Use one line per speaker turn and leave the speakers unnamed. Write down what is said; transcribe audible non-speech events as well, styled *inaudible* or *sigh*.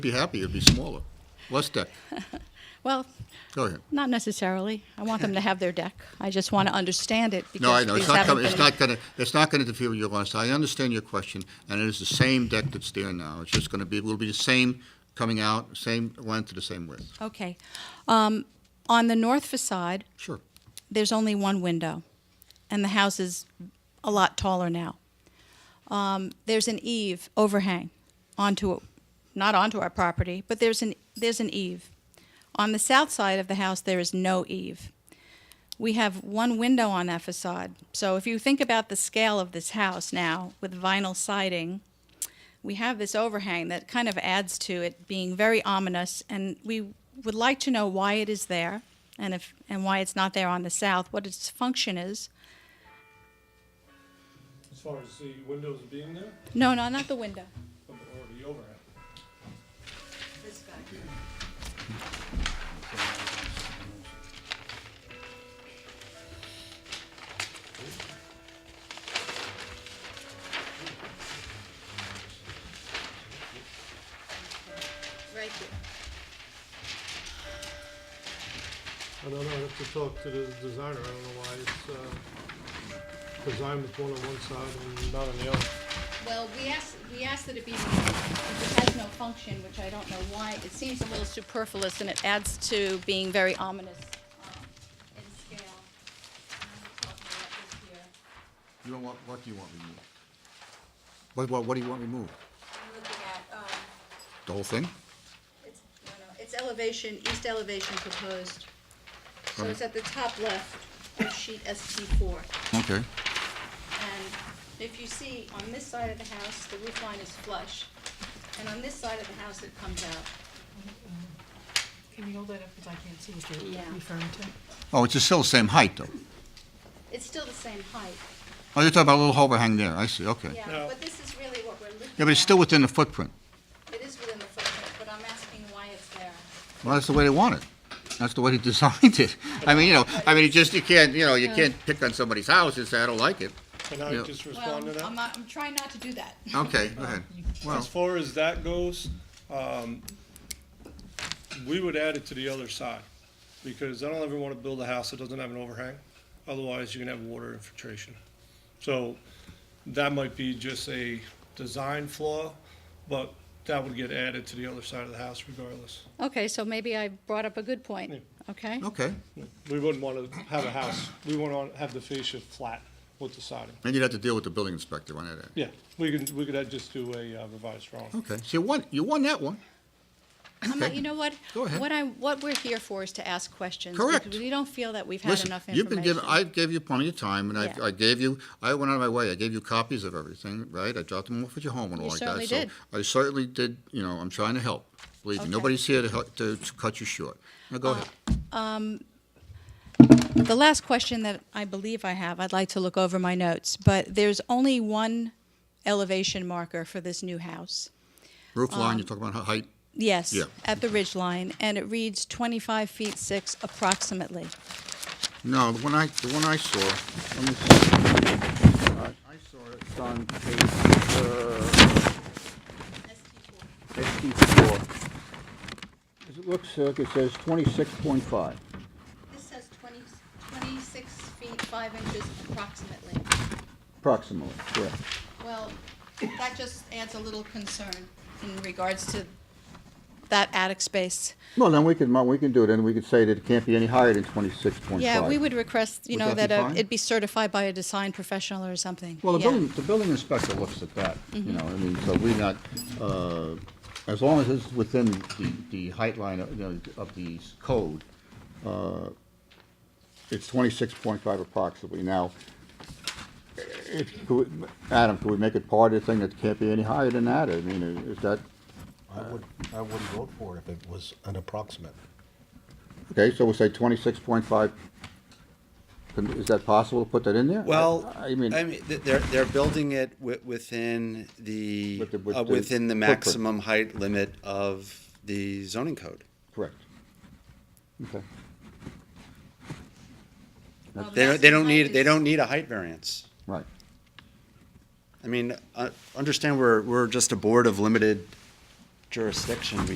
Be happy, it'd be smaller, less deck.
Well,
Go ahead.
not necessarily. I want them to have their deck. I just want to understand it because
No, I know, it's
these
not
haven't
coming, it's
been-
not gonna, it's not gonna interfere with your last, I understand your question, and it is the same deck that's there now. It's just gonna be, it will be the same coming out, same length to the same width.
Okay. Um, on the north facade,
Sure.
there's only one window, and the house is a lot taller now. Um, there's an eave overhang onto, not onto our property, but there's an, there's an eave. On the south side of the house, there is no eave. We have one window on that facade. So if you think about the scale of this house now with vinyl siding, we have this overhang that kind of adds to it being very ominous, and we would like to know why it is there and if and why it's not there on the south, what its function is.
As far as the windows being there,
No, no, not the window.
or the overhead?
Right here.
I don't know, I have to talk to the designer, I don't know why it's, uh, designed with one on one side and not on the other.
Well, we asked, we asked that it be, if it has no function, which I don't know why, it seems a little superfluous and it adds to being very ominous um, in scale.
You don't want, what do you want removed? What, what, what do you want removed?
I'm looking at, um,
The whole thing?
it's, no, no, it's elevation, east elevation proposed. So
Right.
it's at the top left of sheet ST four.
Okay.
And if you see, on this side of the house, the roof line is flush, and on this side of the house, it comes out.
Can you hold that up, because I can't see what
Yeah.
you're referring to?
Oh, it's still the same height, though.
It's still the same height,
Oh, you're talking about a little overhang there, I see, okay. Yeah,
yeah, but this is really what we're looking at.
but it's still within the footprint.
It is within the footprint, but I'm asking why it's there.
Well, that's the way they want it. That's the way they *laughs* designed it. I mean, you know, I mean, it just, you can't, you know, you can't pick on somebody's house and say, I don't like it.
Can I
Yeah.
just
Well,
respond to
I'm,
that?
not- I'm trying not to do that.
Okay, go ahead. Well.
As far as that goes, um, we would add it to the other side, because I don't ever wanna build a house that doesn't have an overhang, otherwise you're gonna have water infiltration. So, that might be just a design flaw, but that would get added to the other side of the house regardless.
*laughs* Okay, so maybe I brought up a good point, okay?
Okay.
We wouldn't want to have a house, we want to have the fascia flat with the siding.
And you'd have to deal with the building inspector on that.
Yeah, we could, we could uh, just do a uh, revised drawing.
Okay, so you won, you won that one.
I'm not, you know what?
Go ahead.
What I, what we're here for is to ask questions.
Correct.
Because we don't feel that we've had
Listen,
enough information.
you've been given, I gave you plenty of time, and I,
Yeah.
I gave you, I went out of my way, I gave you copies of everything, right? I dropped them off at your home and all
You
like that.
certainly
so
did.
I certainly did, you know, I'm trying to help, believe me.
Okay. Uh,
Nobody's here to help, to, to cut you short. Now, go ahead.
The last question that I believe I have, I'd like to look over my notes, but there's only one elevation marker for this new house.
Roof
um,
line, you're talking about hi- height,
Yes,
Yeah.
at the ridge line, and it reads 25 feet 6 approximately.
no, the one I, the one I saw, let me see. Uh, I saw it, it's on page, uh, ST four. As it looks, uh, it says twenty-six point five.
This says 26 feet 5 inches approximately.
Approximately, correct.
Well, that just adds a little concern in regards to that attic space.
Well, then we can, we can do it, and we could say that it can't be any higher than twenty-six point five.
Yeah, we would request, you
Would
know,
that be
that uh,
fine?
it be certified by a design professional or something.
Well, the
Yeah.
building, the building inspector looks at that, you know, I mean, so we're not, uh, as long as it's within the, the height line of, you know, of the code, uh, it's twenty-six point five approximately. Now, if, could we- Adam, could we make it part of the thing that can't be any higher than that? I mean, is that,
I would, I wouldn't vote for it if it was an approximate.
okay, so we'll say twenty-six point five. Is that possible to put that in there?
Well,
I mean.
th- they're they're building it wi- within the,
With the- with
uh,
the
within the
footprint.
maximum height limit of the zoning code.
Correct. Okay.
Well, the
They don't, they
maximum
don't
height
need they
is-
don't need a height variance.
Right.
I mean, uh, understand we're we're just a board of limited jurisdiction.